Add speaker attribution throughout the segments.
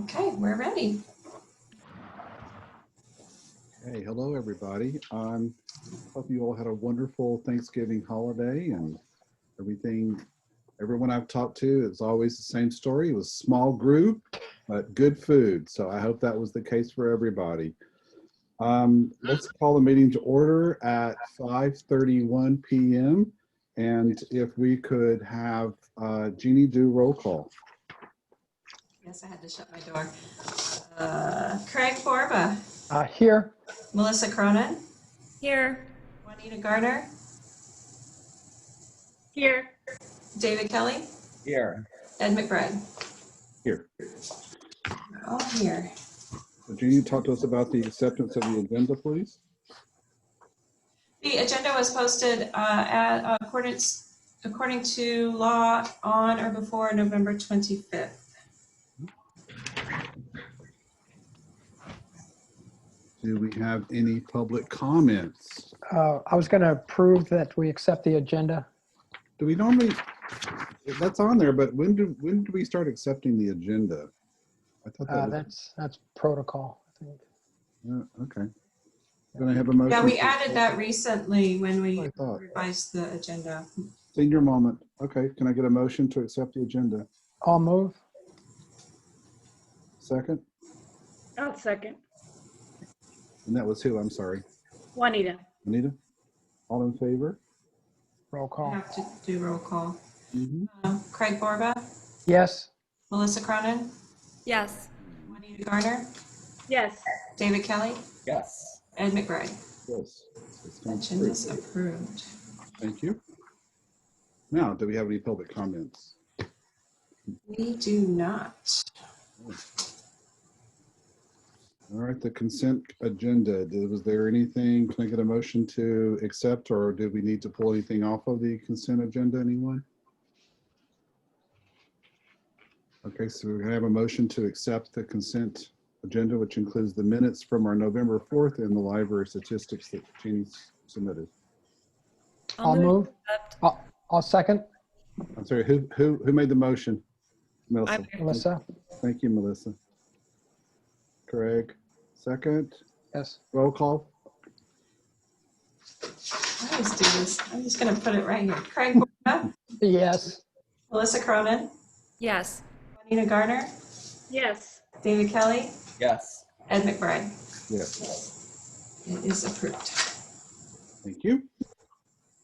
Speaker 1: Okay, we're ready.
Speaker 2: Hey, hello, everybody. Um, hope you all had a wonderful Thanksgiving holiday and everything. Everyone I've talked to, it's always the same story. It was small group, but good food. So I hope that was the case for everybody. Um, let's call the meeting to order at 5:31 p.m. And if we could have uh, Jeannie do roll call.
Speaker 1: Yes, I had to shut my door. Uh, Craig Borba,
Speaker 3: Uh, here.
Speaker 1: Melissa Cronin,
Speaker 4: Here.
Speaker 1: Juanita Garner,
Speaker 4: Here.
Speaker 1: David Kelly,
Speaker 3: Here.
Speaker 1: Ed McBride.
Speaker 2: Here.
Speaker 1: We're All here.
Speaker 2: Jeannie, talk to us about the acceptance of the agenda, please.
Speaker 1: The agenda was posted uh, at accordance, according to law on or before November 25th.
Speaker 2: Do we have any public comments?
Speaker 3: Uh, I was going to approve that we accept the agenda.
Speaker 2: Do we normally, that's on there, but when do, when do we start accepting the agenda? I thought
Speaker 3: Uh,
Speaker 2: that was,
Speaker 3: that's, that's protocol. I think.
Speaker 2: yeah, okay. Gonna have a motion.
Speaker 1: Yeah, we
Speaker 2: to-
Speaker 1: added that recently when we
Speaker 2: I thought.
Speaker 1: revised the agenda.
Speaker 2: Senior moment. Okay, can I get a motion to accept the agenda?
Speaker 3: I'll move.
Speaker 2: Second?
Speaker 4: I'll Oh, second.
Speaker 2: And that was who? I'm sorry.
Speaker 4: Juanita.
Speaker 2: Anita? All in favor?
Speaker 3: Roll
Speaker 1: We
Speaker 3: call.
Speaker 1: have to do roll call.
Speaker 2: Mhm.
Speaker 1: Uh, Craig Borba,
Speaker 3: Yes.
Speaker 1: Melissa Cronin,
Speaker 4: Yes.
Speaker 1: Juanita Garner,
Speaker 4: Yes.
Speaker 1: David Kelly,
Speaker 3: Yes.
Speaker 1: Ed McBride.
Speaker 2: Yes. It's gone through.
Speaker 1: Agenda's approved.
Speaker 2: Thank you. Now, do we have any public comments?
Speaker 1: We do not.
Speaker 2: All right, the consent agenda, Did- was there anything, can I get a motion to accept or did we need to pull anything off of the consent agenda, anyone? Okay, so we're gonna have a motion to accept the consent agenda, which includes the minutes from our November 4th and the library statistics that Jeannie submitted.
Speaker 3: I'll move. I'll, I'll second.
Speaker 2: I'm sorry, who, who, who made the motion? Melissa.
Speaker 3: Melissa?
Speaker 2: Thank you, Melissa. Craig, second,
Speaker 3: Yes.
Speaker 2: roll call?
Speaker 1: I always do this. I'm just going to put it right here. Craig Borba,
Speaker 3: Yes.
Speaker 1: Melissa Cronin,
Speaker 4: Yes.
Speaker 1: Juanita Garner,
Speaker 4: Yes.
Speaker 1: David Kelly,
Speaker 5: Yes.
Speaker 1: Ed McBride.
Speaker 2: Yes.
Speaker 1: It is approved.
Speaker 2: Thank you.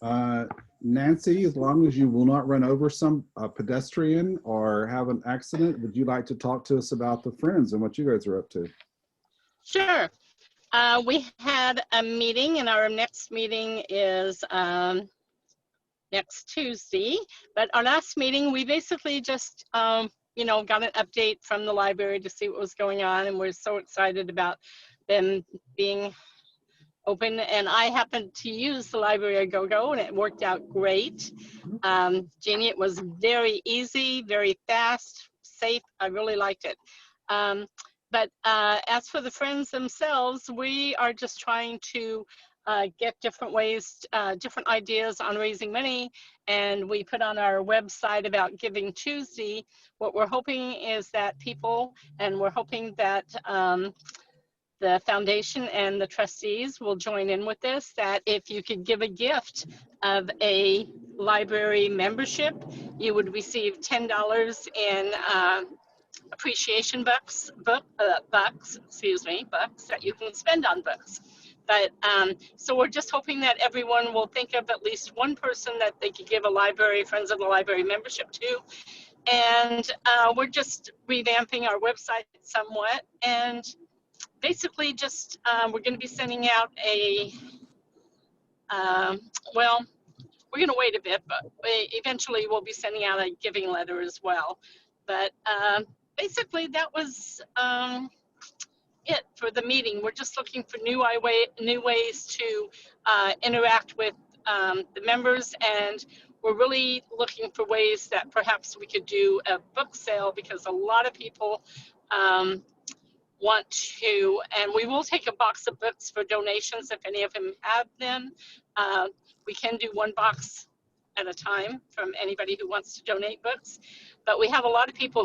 Speaker 2: Uh, Nancy, as long as you will not run over some uh, pedestrian or have an accident, would you like to talk to us about the Friends and what you guys are up to?
Speaker 6: Sure. Uh, we had a meeting and our next meeting is, um, next Tuesday. But our last meeting, we basically just, um, you know, got an update from the library to see what was going on and we're so excited about them being open. And I happened to use the library at GoGo and it worked out great. Um, Jeannie, it was very easy, very fast, safe. I really liked it. Um, but uh, as for the friends themselves, we are just trying to uh, get different ways, uh, different ideas on raising money. And we put on our website about Giving Tuesday. What we're hoping is that people, and we're hoping that um, the foundation and the trustees will join in with this, that if you could give a gift of a library membership, you would receive $10 in um, appreciation books, book, uh, bucks, excuse me, bucks that you can spend on books. But um, so we're just hoping that everyone will think of at least one person that they could give a library, Friends of the Library membership to. And uh, we're just revamping our website somewhat. And basically, just um, we're going to be sending out a, um, well, we're going to wait a bit, but we eventually we'll be sending out a giving letter as well. But um, basically that was um, it for the meeting. We're just looking for new i- way, new ways to uh, interact with um, the members, and we're really looking for ways that perhaps we could do a book sale because a lot of people um, want to, and we will take a box of books for donations if any of them have them. Uh, we can do one box at a time from anybody who wants to donate books, but we have a lot of people